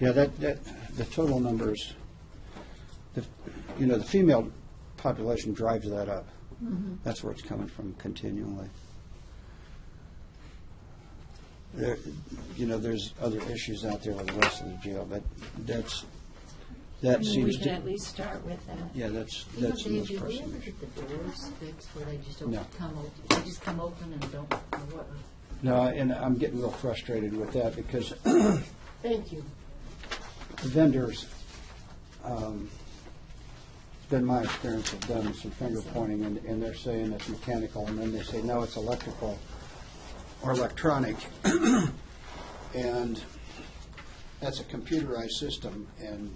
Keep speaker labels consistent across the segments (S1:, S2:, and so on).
S1: Yeah, that, that, the total numbers, the, you know, the female population drives that up. That's where it's coming from continually. There, you know, there's other issues out there with the rest of the jail, but that's, that
S2: I mean,
S1: seems
S2: We could
S1: to,
S2: at least start with that.
S1: yeah, that's,
S3: You know,
S1: that's the
S3: Dave,
S1: most
S3: did we ever
S1: pressing. issue.
S3: get the doors fixed where they just
S1: No.
S3: don't come, op- they just come open and don't, or what?
S1: No, and I'm getting real frustrated with that because
S3: Thank you.
S1: vendors, um, it's been my experience, have done some finger pointing, and, and they're saying it's mechanical, and then they say, no, it's electrical or electronic. And that's a computerized system, and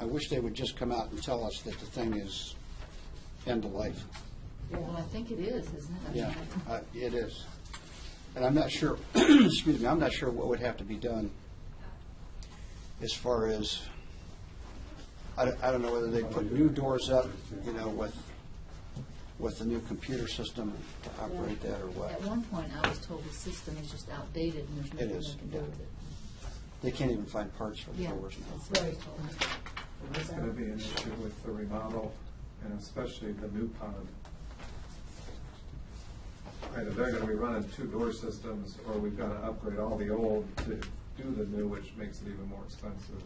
S1: I wish they would just come out and tell us that the thing is end of life.
S3: Well, I think it is, isn't it? I mean,
S1: Yeah,
S3: I-
S1: uh, it is. And I'm not sure, excuse me, I'm not sure what would have to be done as far as, I don't, I don't know whether they put new doors up, you know, with, with the new computer system to operate that or
S3: At
S1: what.
S3: one point, I was told the system is just outdated and there's nothing
S1: is,
S3: they can do
S1: yeah.
S3: with it.
S1: They can't even find parts for the
S3: Yeah.
S1: doors now.
S3: that's what I was told.
S4: That's going to be an issue with the remodel and especially the new pod. Either they're going to be running two door systems or we've got to upgrade all the old to do the new, which makes it even more expensive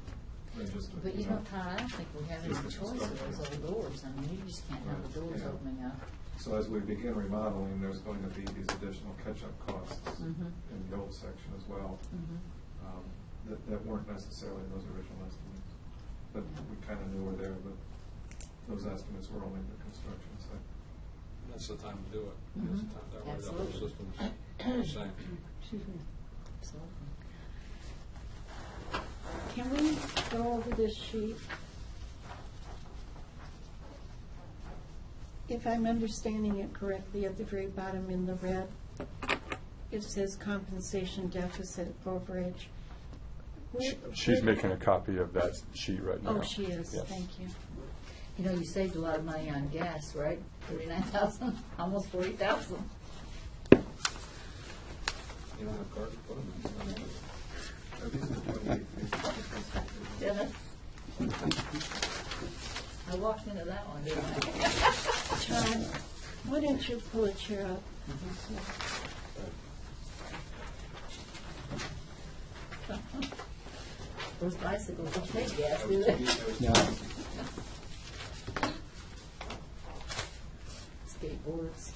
S4: than just. a-
S3: But you know, Todd, I don't think we have any
S4: Just the
S3: choice of those
S4: construction.
S3: old doors. I mean, you just can't have the doors
S4: Yeah.
S3: opening up.
S4: So as we begin remodeling, there's going to be these additional catch-up costs
S3: Mhm.
S4: in the old section as well.
S3: Mhm.
S4: um, that, that weren't necessarily in those original estimates. But we kind of knew were there, but those estimates were only the construction side.
S5: That's the time to do it. That's the time, that way the whole
S3: Absolutely.
S5: system's the same.
S3: Absolutely.
S6: Can we go over this sheet? If I'm understanding it correctly, at the very bottom in the red, it says compensation deficit overage. Where-
S7: She- She's
S6: where-
S7: making a copy of that sheet right now.
S6: Oh, she is,
S7: Yes.
S6: thank you.
S3: You know, you saved a lot of money on gas, right? Thirty-nine thousand, almost forty thousand.
S4: You don't have cars to put them in. At least the twenty-eight.
S3: Dennis? I walked into that one, didn't
S6: John,
S3: I?
S6: why don't you pull a chair up?
S3: Those bicycles don't take gas, do they?
S1: Now,
S3: Skateboards.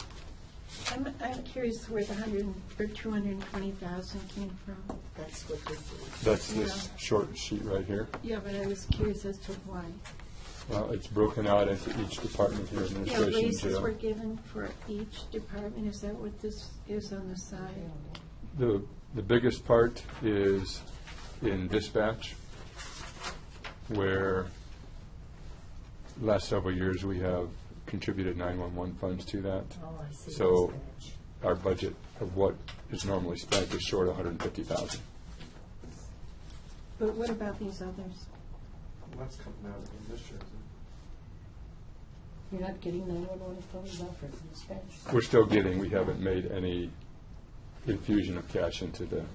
S6: I'm, I'm curious where the hundred, and- or two hundred and twenty thousand came from.
S3: That's what this is.
S7: That's this short sheet right here.
S6: Yeah, but I was curious as to why.
S7: Well, it's broken out into each department here,
S6: Yeah,
S7: administration,
S6: raises were
S7: jail.
S6: given for each department, is that what this is on the side?
S7: The, the biggest part is in dispatch, where last several years, we have contributed 911 funds to that.
S3: Oh, I see.
S7: So
S3: Dispatch.
S7: our budget of what is normally spent is short 150,000.
S6: But what about these others?
S4: That's coming out in this year, isn't it?
S3: You're not getting nine-one-one phone number from dispatch?
S7: We're still getting, we haven't made any infusion of cash into the
S4: And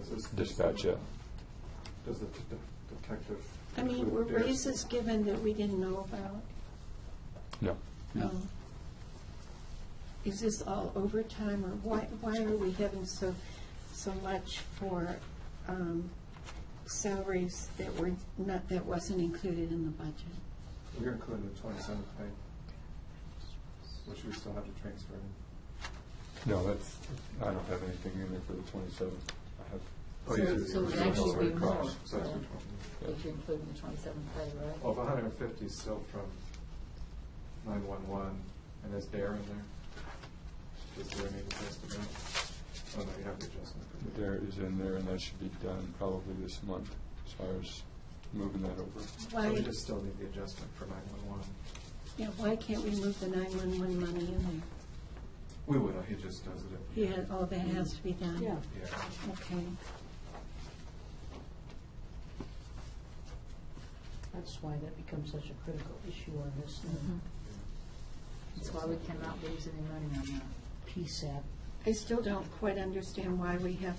S4: this is-
S7: dispatch yet.
S4: Does the det- detective?
S6: I mean, were
S4: include their-
S6: raises given that we didn't know about?
S7: No.
S1: No.
S6: Um, Is this all overtime, or why, why are we having so, so much for um, salaries that were not, that wasn't included in the budget?
S4: We're including the twenty-seventh pay, which we still have to transfer in.
S7: No, that's, I don't have anything in there for the twenty-seventh. I have.
S4: Oh, yeah,
S3: So-
S4: it's-
S3: so it would
S4: it's
S3: actually be
S4: already
S3: more.
S4: crossed, so it's
S3: Yeah.
S4: 20.
S3: If you're including the twenty-seventh pay, right?
S4: Well, the hundred and fifty is still from nine-one-one, and is there in there? Is there any adjustment? Oh, no, you have the adjustment.
S7: There is in there, and that should be done probably this month, as far as moving that over.
S4: So
S6: Why,
S4: We just still need the adjustment for nine-one-one.
S6: yeah, why can't we move the 911 money in
S4: We will, he just does it.
S6: there? Yeah, all that has to be done?
S2: Yeah.
S4: Yeah.
S6: Okay.
S2: That's why that becomes such a critical issue on this um,
S3: That's why we cannot lose any money on that.
S2: PSAP
S6: I still don't quite understand why we have